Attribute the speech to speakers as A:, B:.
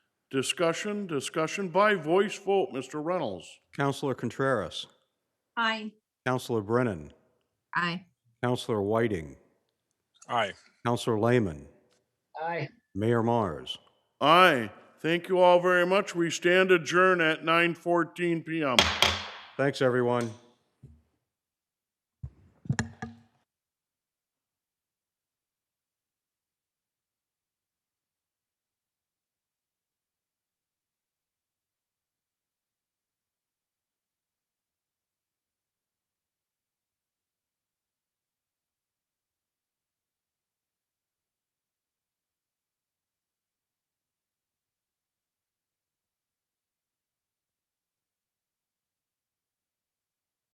A: Discussion, discussion by voice vote, Mr. Reynolds.
B: Counselor Contreras,
C: Aye.
B: Counselor Brennan,
C: Aye.
B: Counselor Whiting,
D: Aye.
B: Counselor Lehman,
E: Aye.
B: Mayor Mars.
A: Aye. Thank you all very much. We stand adjourned at 9:14 PM.
B: Thanks, everyone.